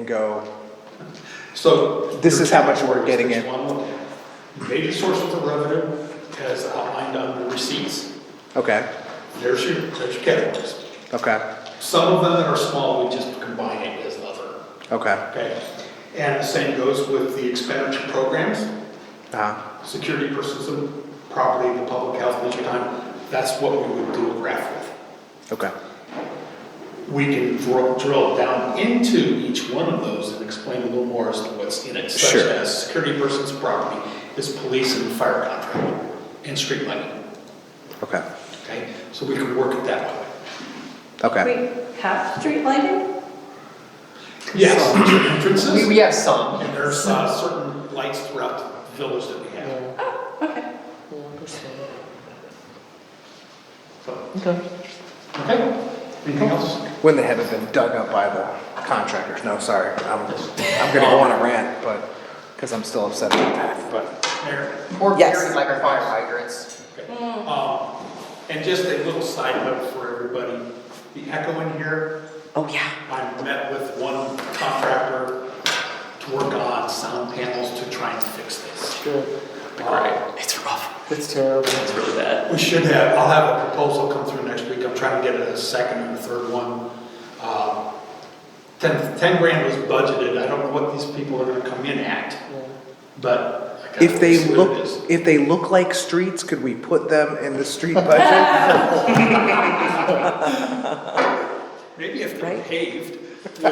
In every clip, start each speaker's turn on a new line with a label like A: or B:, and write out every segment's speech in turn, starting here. A: and go,
B: So.
A: This is how much we're getting in.
B: Major source of the revenue as outlined under receipts.
A: okay,
B: There's your, there's your categories.
A: okay,
B: Some of them that are small, we just combine it as other,
A: okay,
B: okay? And the same goes with the expenditure programs,
A: uh,
B: security, persons, property, the public health, leisure time. That's what we would do a graph with.
A: okay,
B: we can drill, drill down into each one of those and explain a little more as to what's in it, such
A: Sure.
B: as security person's property is police and fire contract and street lighting.
A: okay,
B: Okay, so we can work it that way.
A: okay.
C: We have street lighting?
B: Yes,
D: We,
B: entrances,
D: we have some.
B: and there's uh, certain lights throughout the village that we have.
C: Okay.
B: So,
D: Okay.
B: Okay, anything else?
A: When they haven't been dug up by the contractors, no, sorry, I'm, I'm gonna go on a rant, but, because I'm still upset about that.
B: But, Mayor,
D: Or
A: Yes.
D: buried like our fire hydrants.
B: Okay. Um, And just a little side note for everybody, the echo in here. Oh, yeah. I met with one contractor to work on sound panels to try and fix this.
D: Good.
B: Right. It's rough.
D: It's terrible.
E: It's really bad.
B: We should have, I'll have a proposal come through next week, I'm trying to get a second and a third one. Um, Ten, ten grand was budgeted, I don't know what these people are gonna come in at, but. I gotta
A: If they
B: see what it
A: look,
B: is.
A: if they look like streets, could we put them in the street budget?
B: Maybe if they're
F: Right.
B: paved.
E: I'm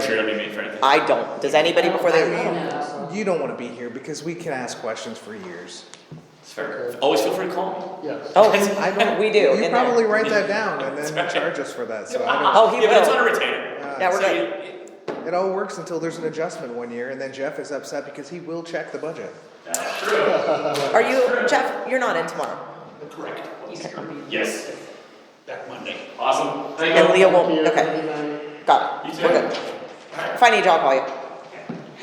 E: sure it'll be made for anything.
F: I don't. Does anybody before they leave?
C: No.
A: You don't wanna be here, because we can ask questions for years.
E: It's fair. Always feel free to call
D: Yes.
F: Oh, I don't, we do.
A: You
F: in there.
A: probably write that down and then charge us for that, so I
F: Oh,
E: me.
F: he
E: Yeah, but it's on a
F: will.
E: retainer.
F: Yeah, we're
E: So
F: good.
E: you- it-
A: don't, it all works until there's an adjustment one year, and then Jeff is upset because he will check the budget.
F: Are you, Jeff, you're not in tomorrow.
B: Correct.
E: Yes.
B: Back Monday.
E: Awesome. Thank you.
F: And Leah won't, okay, got
E: You
F: it.
E: too.
F: We're good. If I need you, I'll call you.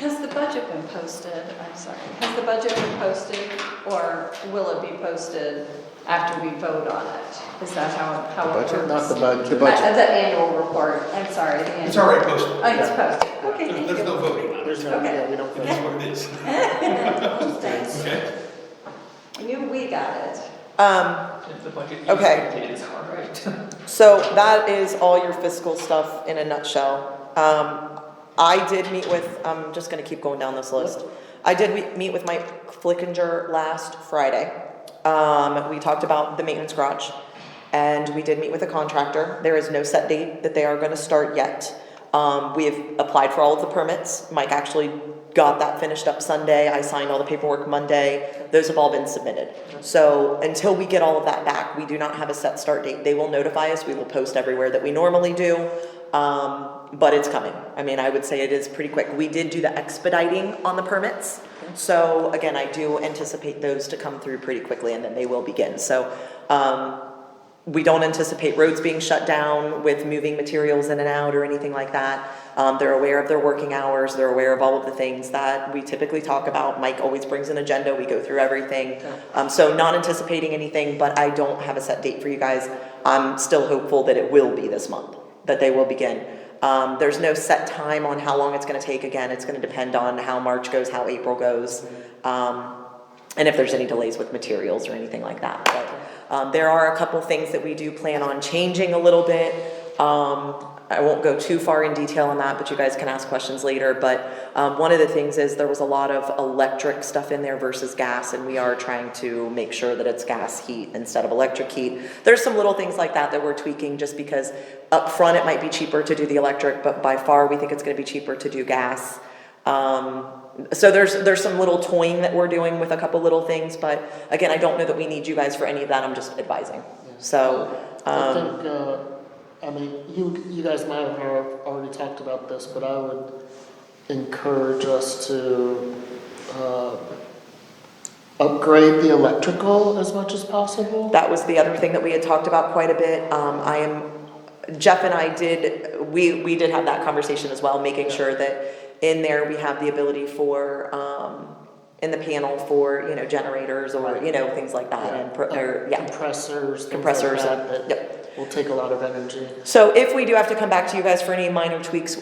C: Has the budget been posted? I'm sorry. Has the budget been posted or will it be posted after we vote on it? Is that how, how it works?
A: budget?
D: Not the budget.
A: The
C: Uh,
A: budget,
C: The annual report, I'm sorry, the
B: It's
C: annual.
B: already posted.
C: Oh, it's posted, okay,
B: There's
C: thank
B: there's
C: you.
B: no voting on it.
D: There's no,
C: Okay.
D: yeah, we don't.
B: It is what it is.
C: Thanks.
B: Okay?
C: I knew we got it.
F: Um, okay. So that is all your fiscal stuff in a nutshell. Um, I did meet with, I'm just gonna keep going down this list. I did we- meet with Mike Flickinger last Friday. Um, we talked about the maintenance garage. And we did meet with a contractor. There is no set date that they are gonna start yet. Um, we have applied for all of the permits. Mike actually got that finished up Sunday. I signed all the paperwork Monday. Those have all been submitted. So until we get all of that back, we do not have a set start date. They will notify us. We will post everywhere that we normally do. Um, but it's coming. I mean, I would say it is pretty quick. We did do the expediting on the permits. So again, I do anticipate those to come through pretty quickly and then they will begin. So, um, we don't anticipate roads being shut down with moving materials in and out or anything like that. Um, they're aware of their working hours, they're aware of all of the things that we typically talk about. Mike always brings an agenda, we go through everything. Um, so not anticipating anything, but I don't have a set date for you guys. I'm still hopeful that it will be this month, that they will begin. Um, there's no set time on how long it's gonna take. Again, it's gonna depend on how March goes, how April goes. Um, and if there's any delays with materials or anything like that. But um, there are a couple things that we do plan on changing a little bit. Um, I won't go too far in detail on that, but you guys can ask questions later. But um, one of the things is there was a lot of electric stuff in there versus gas, and we are trying to make sure that it's gas heat instead of electric heat. There's some little things like that that we're tweaking just because up front it might be cheaper to do the electric, but by far we think it's going to be cheaper to do gas. Um, so there's, there's some little toying that we're doing with a couple little things, but again, I don't know that we need you guys for any of that, I'm just advising. So,
D: I
F: um,
D: think, uh, I mean, you, you guys might have al- already talked about this, but I would encourage us to, uh, upgrade the electrical as much as possible.
F: that was the other thing that we had talked about quite a bit, um, I am, Jeff and I did, we, we did have that conversation as well, making sure that in there we have the ability for, um, in the panel for, you know, generators uh, or, you know, things like that, and, pro- or, yeah,
D: Compressors. things like
F: compressors, uh,
D: that, that
F: yep.
D: will take a lot of energy.
F: So if we do have to come back to you guys for any minor tweaks,